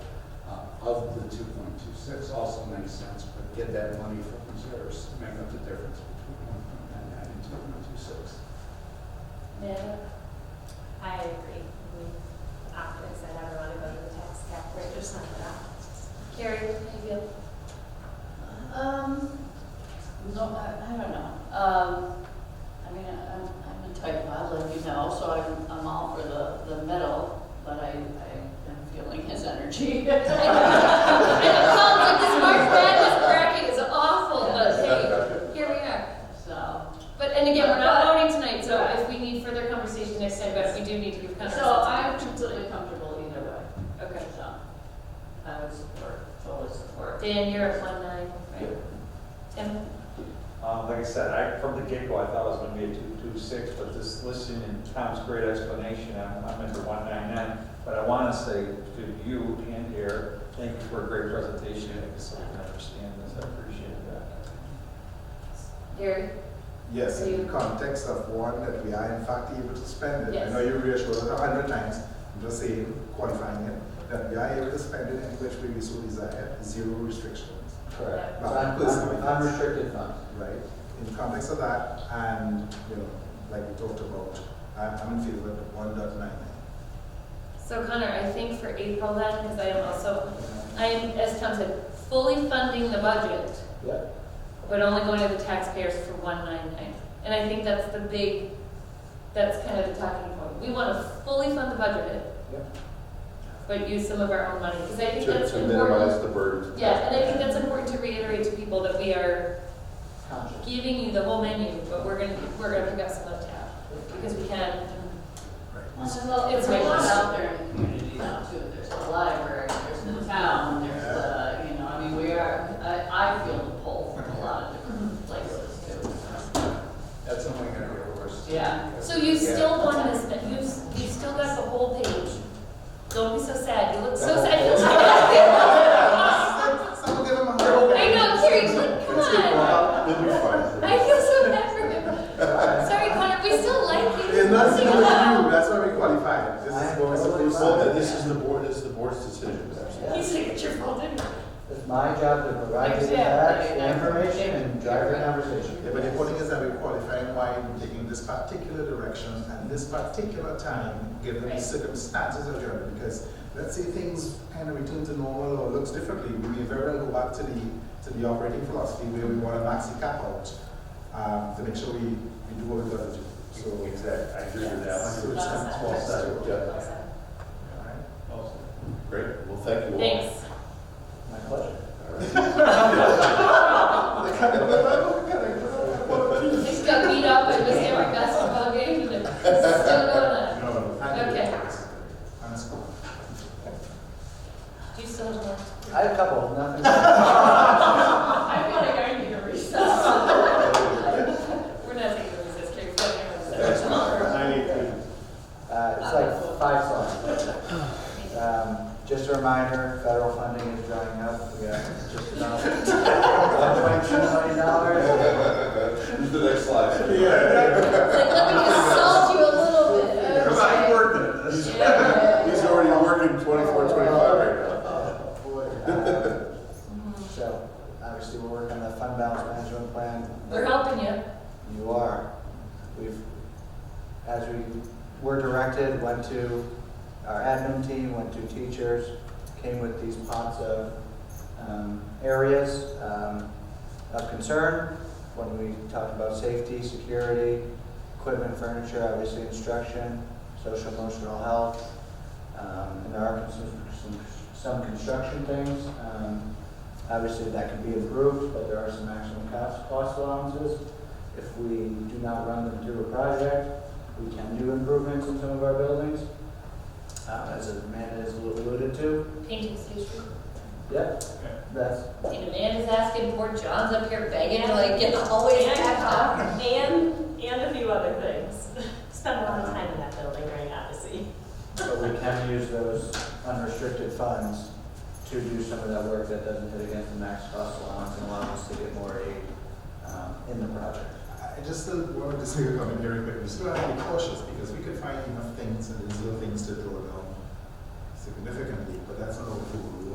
Uh, of the two point two six also makes sense, but get that money from reserves, to make up the difference between one point nine nine and two point two six. No, I agree. We often said I want to go to the tax cap rate or something. Carrie, how you feel? Um, no, I, I don't know. Um, I mean, I- I'm, I'm a type I let you know, so I'm, I'm all for the, the middle, but I, I am feeling his energy. It sounds like this March Madness bracket is awful, but hey, here we are. So, But, and again, we're not voting tonight, so if we need further conversation next time, but we do need to give context. so I'm completely comfortable either way, Okay. so I would support, totally support. Dan, you're at one nine, right? Yep. Tim? Um, like I said, I, from the get-go, I thought it was gonna be a two-two-six, but this, listening to Tom's great explanation, I'm, I'm into one-nine-nine. But I wanna say to you and Eric, thank you for a great presentation, I guess I can understand this, I appreciate that. Gary? Yes, You- in the context of one, that we are in fact able to spend it. I Yes. know you reassured us a hundred times, I'm just saying, qualifying it, that we are able to spend it in which way we so desire, zero restrictions, Correct. Un- un- Unrestricted funds. right? In the context of that, and, you know, like we talked about, I'm, I'm in favor of one dot nine nine. So Connor, I think for April then, because I am also, I am, as Tom said, fully funding the budget, Yeah. but only going to the taxpayers for one nine nine. And I think that's the big, that's kind of the talking point. We want to fully fund the budget, Yep. but use some of our own money, because I think To, that's to minimize important. the burden. Yeah, and I think that's important to reiterate to people that we are giving you the whole menu, but we're gonna, we're gonna pick up some of tab, because we can. Well, it's a lot out Mm-hmm. there in the community now too. There's the library, there's the town, there's the, you know, I mean, we are, I, I feel the pull from a lot of different places too. so. That's only gonna get worse. Yeah. So you still want this, but you, s- you still got the whole page. Don't be so sad, you look so sad. I feel so bad. Someone give them a I hundred. know, Carrie, like, come on. Then you're fine. I feel so bad for him. Sorry, Connor, we still like you. It's not, Sing it's not you, along. that's why we qualified, this is what we're supposed to. Well, then this is the board, this is the board's decision. He's like, it's your fault, didn't it? It's my job to provide you the facts, the information, and drive the conversation. Yeah, but the point is that we're qualifying why we're taking this particular direction and this particular time, given the Right. circumstances of Germany, because let's say things kind of return to normal or looks differently, we may very well go back to the, to the operating philosophy where we want a maxi cap out, um, to make sure we, we do what we gotta do, so. Exactly, I agree with that's that. the extent- Well said, All yeah. right. Great, well, thank you all. Thanks. My pleasure. Just got beat up, I missed every basketball game, and it's still going on. No, no, thank you. Okay. Thanks. Do you still have one? I have a couple, nothing. I feel like I need a recess. We're not taking this, it's Carrie, so everyone's- Uh, it's like five slides. Um, just a reminder, federal funding is drying up. We got just about one point two million dollars. The next slide. It's like, let me just salt you a little bit. okay. He's Yeah. he's already working 24, 25 right now. Boy, uh, So, obviously, we're working on the fund balance management plan. We're helping you. You are. We've, as we were directed, went to our admin team, went to teachers, came with these pots of um, areas um, of concern. When we talked about safety, security, equipment, furniture, obviously instruction, social emotional health. Um, And there are some- some, some construction things. um, Obviously, that can be improved, but there are some maximum cost cost allowances. If we do not run them through a project, we can do improvements in some of our buildings, um, as Amanda has alluded to. Painting station. Yep, that's, And Amanda's asking poor John's up here begging to like get the hallways back up. um, And, and a few other things. Spend a lot of time in that building during Odyssey. but we can use those unrestricted funds to do some of that work that doesn't hit against the max cost allowance and allow us to get more aid, um, in the project. I I just still want to disagree with Robin here, but we still have to be cautious because we could find enough things and there's little things to draw down significantly, but that's not what we